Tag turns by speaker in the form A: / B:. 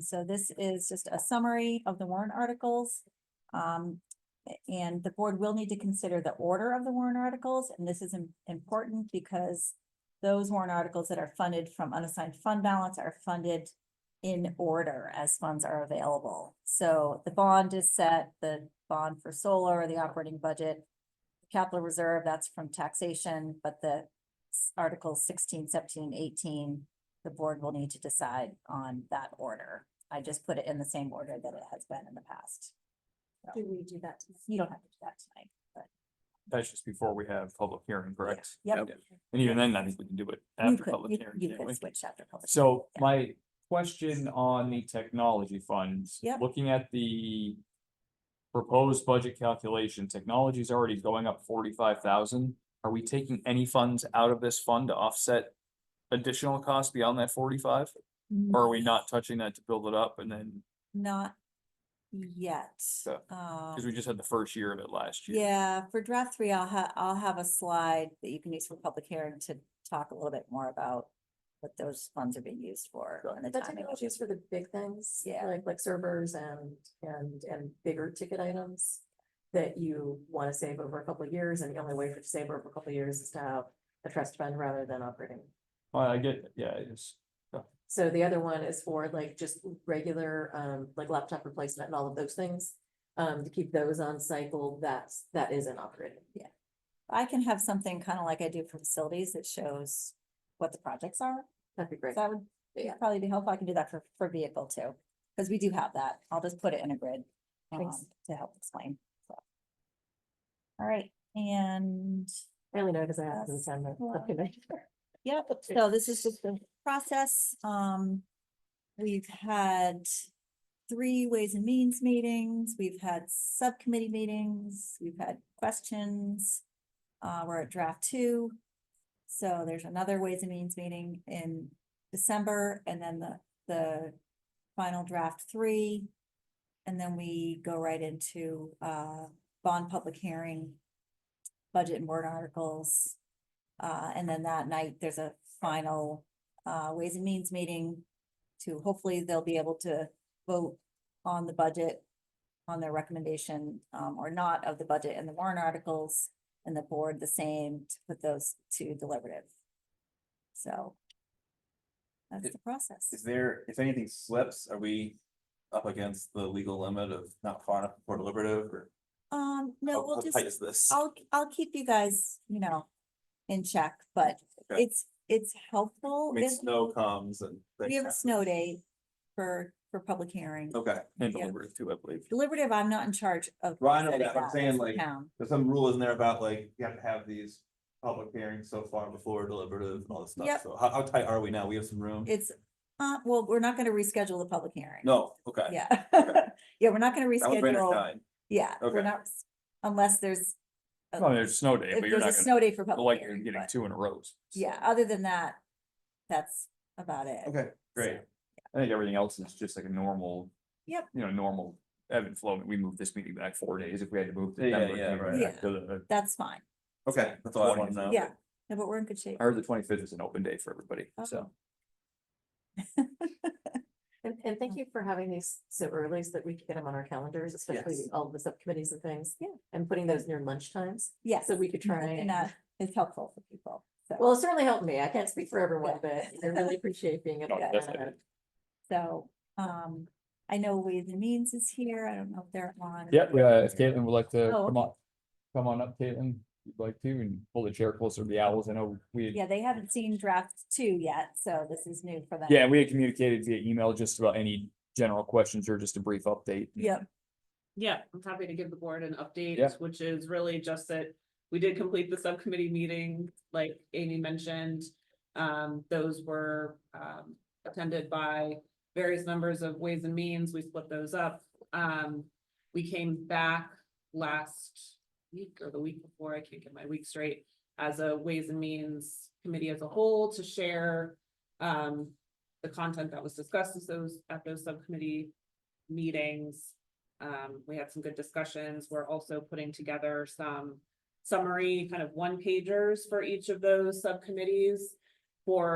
A: so this is just a summary of the warrant articles. Um, and the board will need to consider the order of the warrant articles, and this is im- important because those warrant articles that are funded from unassigned fund balance are funded in order as funds are available. So the bond is set, the bond for solar, the operating budget, capital reserve, that's from taxation, but the s- articles 16, 17, and eighteen, the board will need to decide on that order. I just put it in the same order that it has been in the past.
B: Do we do that? tonight?
A: You don't have to do that tonight.
C: That's just before we have public hearing, correct?
A: Yep.
C: And even then, I think we can do it
A: You
C: after
A: could,
C: public
A: you-
C: hearing.
A: you
C: can't we?
A: could switch after public.
C: So
A: yeah.
C: my question on the technology funds.
A: Yep.
C: Looking at the proposed budget calculation, technology is already going up forty-five thousand. Are we taking any funds out of this fund to offset additional costs beyond that forty-five? Or are we not touching that to build it up and then,
A: Not yet.
C: Yeah, because we
A: Um,
C: just had the first year of it last year.
A: yeah, for draft three, I'll ha- I'll have a slide that you can use for public hearing to talk a little bit more about what those funds are being used for
C: Got it.
A: and the
B: That
A: timing.
B: technology is for the big things.
A: Yeah.
B: Like, like servers and, and, and bigger ticket items that you want to save over a couple of years, and the only way to save over a couple of years is to have a trust fund rather than operating.
C: Well, I get, it. yeah, it's,
B: So the other one is for like just regular, um, like laptop replacement and all of those things. Um, to keep those on cycle, that's, that isn't operating.
A: I can have something kind of like I do for facilities that shows what the projects are.
B: That'd be great.
A: That would be-
B: Yeah.
A: probably be helpful. I can do that for, for vehicle too, because we do have that. I'll just put it in a grid
B: Thanks.
A: um, to help explain. so. All right, and
B: I only know because I have some time.
A: Well-
B: to-
A: Yep, so this is just the process, um. We've had three Ways and Means meetings, we've had subcommittee meetings, we've had questions. Uh, we're at draft two. So there's another Ways and Means meeting in December and then the, the final draft three. And then we go right into, uh, bond public hearing. Budget and word articles, uh, and then that night, there's a final, uh, Ways and Means meeting to hopefully they'll be able to vote on the budget, on their recommendation, um, or not of the budget and the warrant articles, and the board the same to put those to deliberative. So that's
D: It-
A: the process.
D: Is there, if anything slips, are we up against the legal limit of not far enough before deliberative or?
A: Um,
D: how-
A: no,
D: how
A: we'll just.
D: tight is This.
A: I'll, I'll keep you guys, you know, in check, but
D: Okay.
A: it's, it's helpful.
D: I mean,
A: if
D: snow comes and.
A: We
D: things
A: have a
D: happen.
A: snow day for, for public hearing.
D: Okay,
C: and
A: Yeah.
C: delivered too, I believe.
A: Deliberative, I'm not in charge of.
D: Well, I know
A: setting
D: that, I'm
A: that.
D: saying,
A: That's the
D: like,
A: town.
D: there's some rule in there about like, you have to have these public hearings so far before deliberative and all this
A: Yep.
D: stuff. So how, how tight are we now? We have some room?
A: It's, uh, well, we're not gonna reschedule the public hearing.
D: No, okay.
A: Yeah, yeah, we're not gonna
D: That was ran at
A: reschedule,
D: nine.
A: yeah, we're
D: Okay.
A: not, unless there's,
C: Well, there's a snow day,
A: if
C: but you're
A: there's Uh, a
C: not gonna,
A: snow day for
C: the
A: public
C: like, you're
A: hearing,
C: getting
A: but-
C: two in a row.
A: yeah, other than that, that's about it.
D: Okay, great.
C: I think everything else is just like a normal.
A: Yep.
C: You know, normal ebb and flow. We moved this meeting back four days if we had to move. the
D: Yeah,
C: Denver
D: yeah,
C: meeting
D: right.
C: back to the-
A: That's fine,
D: Okay, that's all I want to know.
A: yeah, no, but we're in good shape.
C: I heard the twenty fifth is an open day for everybody,
A: Oh.
C: so.
B: And, and
A: Mm.
B: thank you for having these so early so that we can get them on our calendars, especially
D: Yes.
B: all the subcommittees and things.
A: Yeah.
B: And putting those near lunch times,
A: Yes.
B: so we could try
A: And
B: and,
A: that is helpful for people, so.
B: well, it certainly helped me. I can't speak for everyone,
A: Yeah.
B: but I really appreciate being able
C: No,
B: to.
C: definitely.
B: add.
A: So, um, I know Ways and Means is here. I don't know if they're on.
C: yeah, if uh, Caitlin would like to
A: Oh, come
C: on, come on up, Caitlin, you'd like to, and pull the chair closer to the owls. I know we.
A: Yeah, they haven't seen draft two yet, so this is new for them.
C: Yeah, we had communicated via email just about any general questions or just a brief update.
A: Yep,
E: Yeah, I'm happy to give the board an
C: Yeah.
E: update, which is really just that we did complete the subcommittee meeting, like Amy mentioned. Um, those were, um, attended by various members of Ways and Means. We split those up. Um, we came back last week or the week before, I can't get my week straight, as a Ways and Means Committee as a whole to share, um, the content that was discussed at those, at those subcommittee meetings. Um, we had some good discussions. We're also putting together some summary kind of one pagers for each of those subcommittees for